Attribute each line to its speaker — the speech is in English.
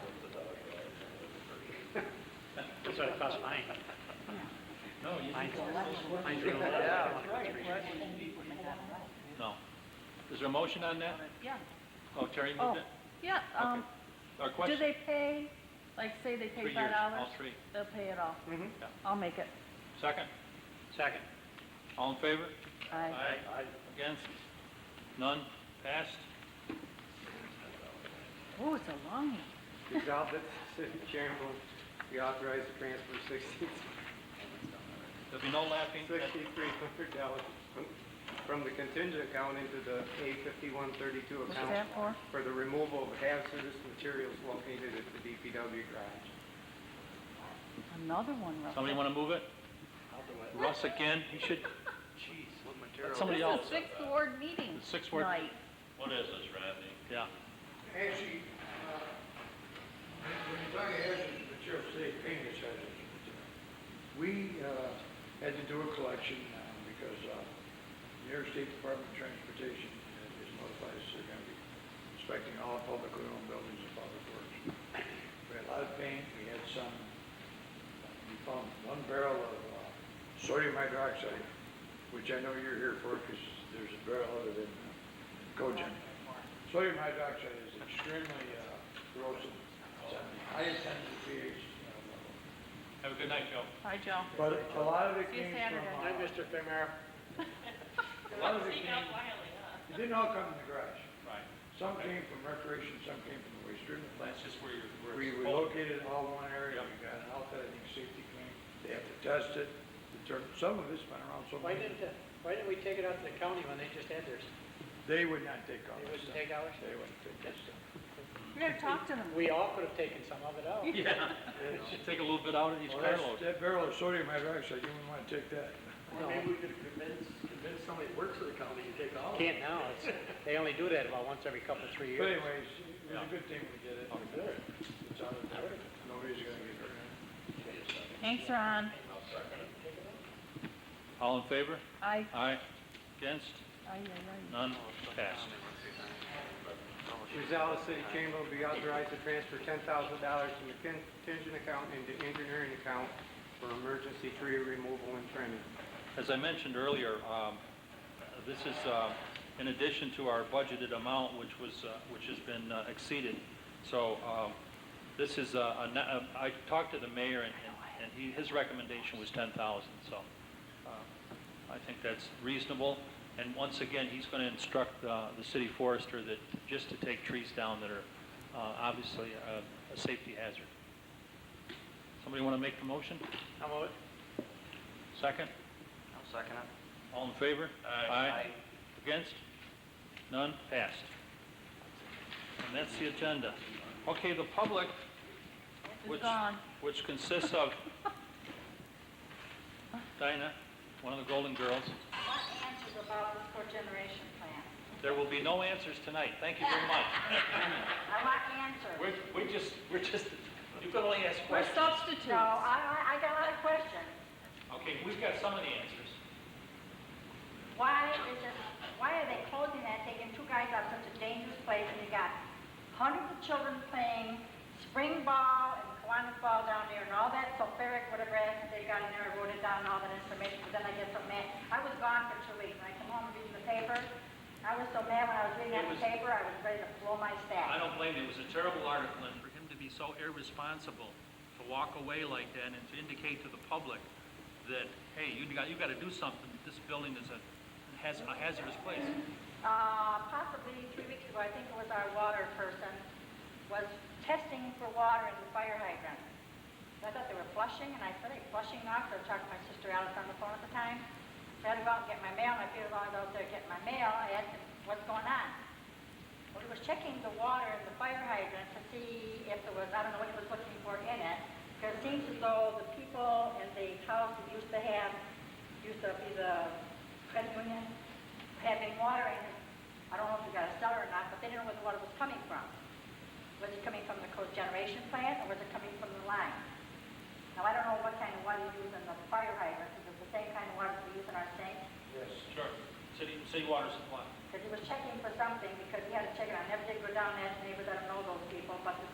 Speaker 1: That's what it cost mine.
Speaker 2: No, you
Speaker 1: Mine's, mine's real low.
Speaker 2: Yeah.
Speaker 3: Yeah,
Speaker 2: No. Is there a motion on that? Oh, Terry
Speaker 3: oh,
Speaker 2: moved it?
Speaker 3: yeah, um,
Speaker 2: Our
Speaker 3: do
Speaker 2: question?
Speaker 3: they pay, like, say they
Speaker 2: Three
Speaker 3: pay five
Speaker 2: years,
Speaker 3: dollars?
Speaker 2: all three.
Speaker 3: They'll pay it all.
Speaker 1: Mhm.
Speaker 3: I'll make it.
Speaker 2: Second?
Speaker 1: Second.
Speaker 2: All in favor?
Speaker 3: I,
Speaker 2: Aye. Against? None? Passed?
Speaker 3: oh, it's a long one.
Speaker 4: Resolved that the city chairman will be authorized to transfer sixteen,
Speaker 2: There'll be no laughing.
Speaker 4: sixty-three hundred dollars from the contingent account into the A fifty-one thirty-two
Speaker 3: What's
Speaker 4: account
Speaker 3: that for?
Speaker 4: for the removal of hazardous materials located at the DPW garage.
Speaker 3: Another one, Russell.
Speaker 2: Somebody want to move it? Russ again? You should,
Speaker 1: Jeez, what material.
Speaker 2: somebody
Speaker 3: This
Speaker 2: else.
Speaker 3: is sixth ward meeting
Speaker 2: The sixth word.
Speaker 3: night.
Speaker 5: What is this, Rodney?
Speaker 2: Yeah.
Speaker 6: Actually, uh, when you talk about hazardous materials, say paint is hazardous material. We uh, had to do a collection uh, because uh, the New York State Department of Transportation is notified us they're going to be inspecting all publicly owned buildings and public works. We had a lot of paint, we had some, we found one barrel of uh, sodium hydroxide, which I know you're here for because there's a barrel of it in uh, Cogen. Sodium hydroxide is extremely uh, corrosive, it's at the highest temperature pH. uh,
Speaker 2: Have a good night, Joe.
Speaker 3: Hi, Joe.
Speaker 6: level. But a lot of it
Speaker 3: See you
Speaker 6: came
Speaker 3: Saturday.
Speaker 6: from,
Speaker 1: Hi,
Speaker 6: uh,
Speaker 1: Mr. Femara.
Speaker 6: a lot of it came, it didn't all come in the garage.
Speaker 2: Right.
Speaker 6: Some came from recreation, some came from the waste treatment plant.
Speaker 2: That's just where you're, where
Speaker 6: We
Speaker 2: it's
Speaker 6: we
Speaker 2: supposed-
Speaker 6: located all in one area,
Speaker 2: Yep.
Speaker 6: we got an outfit, I think safety clean, they have to test it, determine, some of it's been around so
Speaker 1: Why
Speaker 6: long,
Speaker 1: didn't, uh, why didn't we take it out to the county when they just had theirs?
Speaker 6: they would not take all
Speaker 1: They
Speaker 6: that
Speaker 1: wouldn't
Speaker 6: stuff.
Speaker 1: take ours?
Speaker 6: They wouldn't take that stuff.
Speaker 3: You're gonna talk to them.
Speaker 1: We all could have taken some of it out.
Speaker 2: Yeah. Should take a little bit out of each
Speaker 6: Well,
Speaker 2: car
Speaker 6: that's-
Speaker 2: load.
Speaker 6: That barrel of sodium hydroxide, you wouldn't want to take that.
Speaker 7: Or maybe we could convince, convince somebody that works for the county to take all of it.
Speaker 1: Can't now, it's, they only do that about once every couple, of three
Speaker 6: But
Speaker 1: years.
Speaker 6: anyways, it was a good thing we did it. It's out of there. Nobody's gonna get hurt.
Speaker 3: Hanks are on.
Speaker 2: All in favor?
Speaker 3: I,
Speaker 2: Aye. Against?
Speaker 3: I, I,
Speaker 2: None?
Speaker 1: Oh,
Speaker 2: Passed.
Speaker 4: Resolved, the city chamber will be authorized to transfer ten thousand dollars from the contingent account into engineering account for emergency tree removal and trimming.
Speaker 2: As I mentioned earlier, um, this is uh, in addition to our budgeted amount, which was, uh, which has been uh, exceeded. So um, this is, uh, a na- uh, I talked to the mayor, and and- and he, his recommendation was 10,000, so uh, I think that's reasonable. And once again, he's going to instruct uh, the city forester that, just to take trees down that are uh, obviously a a safety hazard. Somebody want to make the motion?
Speaker 1: How about it?
Speaker 2: 2nd
Speaker 7: I'll second it.
Speaker 2: all in favor? Aye. Against? None? Passed. And that's the agenda. Okay, the public,
Speaker 3: it's
Speaker 2: which,
Speaker 3: gone.
Speaker 2: which consists of Dinah, one of the Golden Girls.
Speaker 8: What answers about the cogeneration plan?
Speaker 2: There will be no answers tonight. Thank you very much.
Speaker 8: I want answers.
Speaker 2: We're, we're just, we're just, you can only ask
Speaker 3: We're
Speaker 2: questions.
Speaker 3: substitutes.
Speaker 8: So I, I I got a lot of questions.
Speaker 2: Okay, we've got some of the answers.
Speaker 8: Why is it, why are they closing that, taking two guys out such a dangerous place, and you got hundreds of children playing spring ball and Kiwanis ball down there, and all that sulfuric, whatever acid they got in there, I wrote it down, all that information, but then I get so mad. I was gone for two weeks, and I come home and read the paper, I was so mad when I was reading
Speaker 2: It
Speaker 8: that
Speaker 2: was-
Speaker 8: paper, I was ready to blow my
Speaker 2: I
Speaker 8: stack.
Speaker 2: don't blame you. It was a terrible article, and for him to be so irresponsible, to walk away like that and to indicate to the public that, hey, you got, you gotta do something. This building is a, has a hazardous place.
Speaker 8: uh, possibly three weeks ago, I think it was our water person, was testing for water in the fire hydrant. And I thought they were flushing, and I said, "Are they flushing now?" 'Cause I talked to my sister Alice on the phone at the time. So I had to go out and get my mail, and I figured while I was out there getting my mail, I asked him, what's going on? Well, he was checking the water in the fire hydrant to see if there was, I don't know what he was looking for in it, because it seems as though the people in the house that used to have, used to be the credit union, having water in it. I don't know if they got a cellar or not, but they didn't know where the water was coming from. Was it coming from the cogeneration plant, or was it coming from the line? Now, I don't know what kind of water you use in the fire hydrant, is it the same kind of water we use in our sink?
Speaker 6: Yes.
Speaker 2: Sure. City, city water supply.
Speaker 8: Because he was checking for something, because he had to check it, I never did go down there, neighbors, I don't know those people, but the